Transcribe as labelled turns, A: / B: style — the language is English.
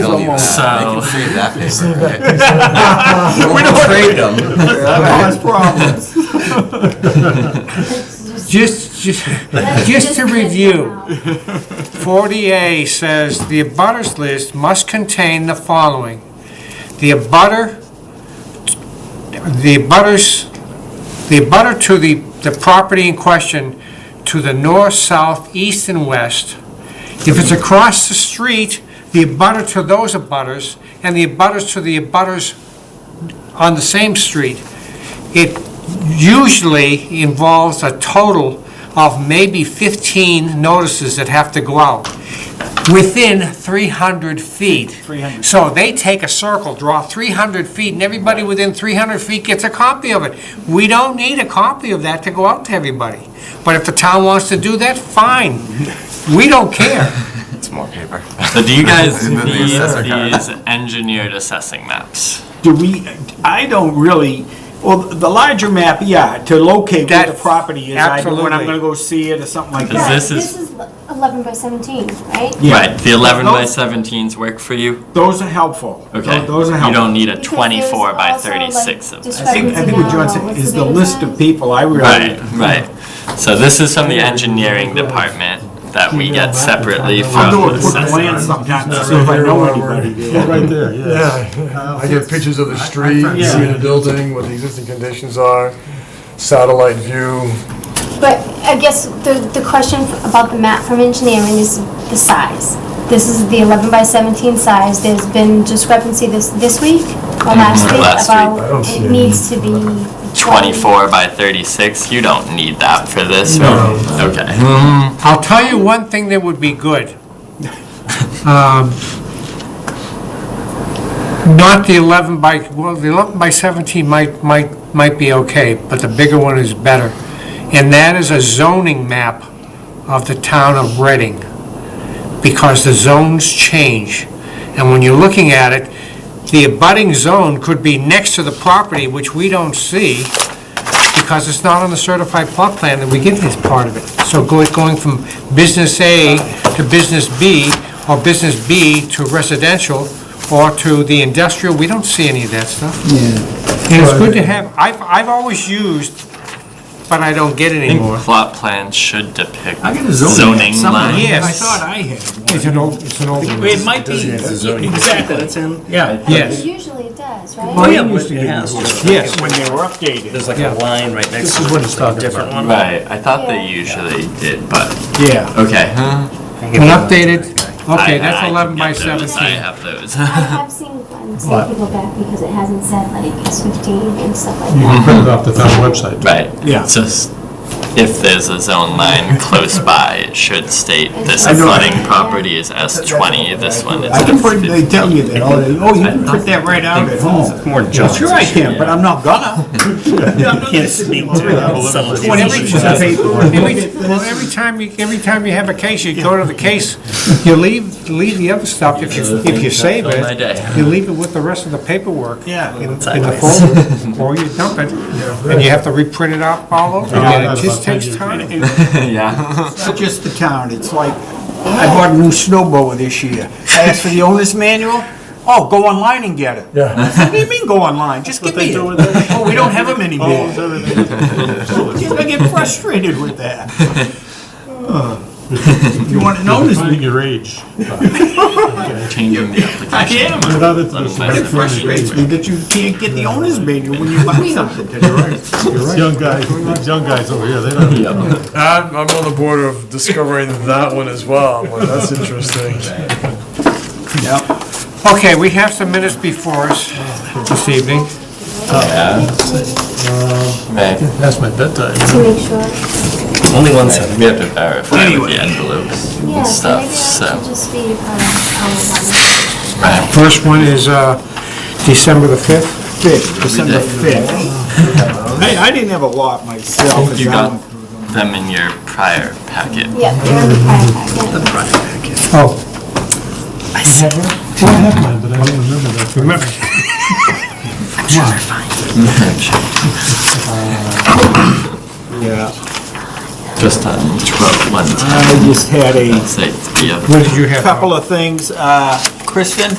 A: tell you
B: almost-
A: that. They can
C: So-
A: save that paper. right?
C: We
A: Don't
C: don't-
A: trade them.
B: That's problems.
D: Just, just,
E: Let's
D: just to
E: get it
D: review,
E: out.
D: 40A says the abutters list must contain the following. The abutter, the abutters, the abutter to the, the property in question to the north, south, east, and west. If it's across the street, the abutter to those abutters, and the abutters to the abutters on the same street. It usually involves a total of maybe 15 notices that have to go out within 300 feet.
B: 300.
D: So they take a circle, draw 300 feet, and everybody within 300 feet gets a copy of it. We don't need a copy of that to go out to everybody. But if the town wants to do that, fine. We don't care.
A: It's more paper.
C: So do you guys
A: And then the
C: need
A: assessor card.
C: these engineered assessing maps?
B: Do we, I don't really, well, the larger map, yeah, to locate where the
D: That-
B: property is, I do when I'm
D: absolutely.
B: gonna go see it or something like
C: Is
E: Yeah,
B: that.
C: this
E: This
C: is-
E: is eleven by seventeen, right?
B: Yeah.
C: Right, the 11 by
B: Those-
C: 17s work for you?
B: Those are helpful.
C: Okay.
B: Those are
C: You don't
B: helpful.
C: need a
E: Because
C: 24 by
E: there's also, like,
C: 36 of this.
B: I think, I think what John said
E: What's
B: is
E: the
B: the
E: big
B: list
E: one?
B: of people, I
C: Right,
B: really,
C: right. So this is from the engineering department that we get separately
B: I'll
C: from
B: do
C: the
B: a quick glance
C: assessor.
B: sometimes, to see if I know anybody.
F: Right there, yeah. Uh, I get pictures of the street,
B: Yeah.
F: see the building, what the existing conditions are, satellite view.
E: But I guess the, the question about the map from engineering is the size. This is the eleven by seventeen size, there's been discrepancy this, this week or last
C: Mhm,
E: week
C: last week.
F: I don't
E: about
F: see
E: it
F: any.
E: needs to be.
C: 24 by 36, you don't need that for this,
F: No.
C: right? Okay.
D: I'll tell you one thing that would be good. Um, Not the 11 by, well, the 11 by 17 might, might, might be okay, but the bigger one is better. And that is a zoning map of the town of Reading, because the zones change. And when you're looking at it, the abutting zone could be next to the property, which we don't see because it's not on the certified plot plan that we get this part of it. So go- going from business A to business B, or business B to residential, or to the industrial, we don't see any of that stuff. Yeah. And it's good to have, I've, I've always used, but I don't get
C: I think
D: anymore.
C: plot plans should depict
B: I got a
C: zoning lines.
D: Yes.
B: I thought I had one.
D: It's an old, it's an old one.
G: It might be,
A: zoning.
G: exactly, that's in, yeah.
D: Yes,
E: Usually it does, right?
G: Oh, yeah, but it has to.
D: yes.
B: When they were updated.
G: There's like a line right next to it. This is what it's Different one.
C: Right, I thought they
E: Yeah.
C: usually did, but,
B: Yeah.
C: okay.
D: An updated, okay,
C: I- I
D: that's
C: can
D: 11 by
C: get those. I
D: 17.
C: have those.
E: I have seen ones that people back because it hasn't said like it's fifteen and stuff like that.
D: Mm-hmm.
H: print it off the town website.
C: Right.
B: Yeah.
C: So s- if there's a zone line close by, it should state this
E: I know.
C: flooding property is S twenty, this one is
B: I
C: S
B: can print, they
C: fifty.
B: tell you that, oh, they- oh, you can print that right out at home.
G: More junk.
B: Sure I can, but I'm not gonna.
G: Can't speak to the subtleties.
B: Whatever it is.
D: Every- Well, every time you, every time you have a case, you go to the case, you leave, leave the other stuff if you, if you save
C: Fill my
D: it.
C: day.
D: You leave it with the rest of the paperwork.
B: Yeah.
D: In in the folder, or you dump it, and you have to reprint it out all over again. It just takes time.
C: Yeah.
B: It's not just the town, it's like, I bought a new snowblower this year. I asked for the owner's manual, oh, go online and get it.
F: Yeah.
B: What do you mean go online? Just give me it. Oh, we don't have them anymore. I get frustrated with that. If you want to know this,
H: Finding your age.
C: Changing the
B: I
C: application.
B: am.
H: Without it, it's
B: It frustrates me that you can't get the owner's manual when you buy something today.
H: it's young guys, these young guys over here, they don't.
F: I'm, I'm on the border of discovering that one as well. I'm like, That's interesting.
B: Yeah.
D: Okay, we have some minutes before us this evening.
C: Right.
H: That's my bedtime.
E: To make sure.
C: Only one second. We have to verify with
B: Anyway.
C: the envelopes
E: Yeah,
C: and
E: so maybe I
C: stuff, so.
E: should just be, um,
C: Right.
D: First one is uh, December the 5th.
B: Fifth, December fifth. I, I didn't have a lot myself. as
C: You
B: I
C: got
B: went
C: them in your prior packet.
E: yeah, they're in the prior packet.
D: Oh,
H: Well, I have mine, but I don't remember that. Remember.
B: Yeah,
C: Just on twelve, one,
B: I just had a
C: say it's the other.
D: what did you have? Bob?
B: couple of things. Uh, Kristen,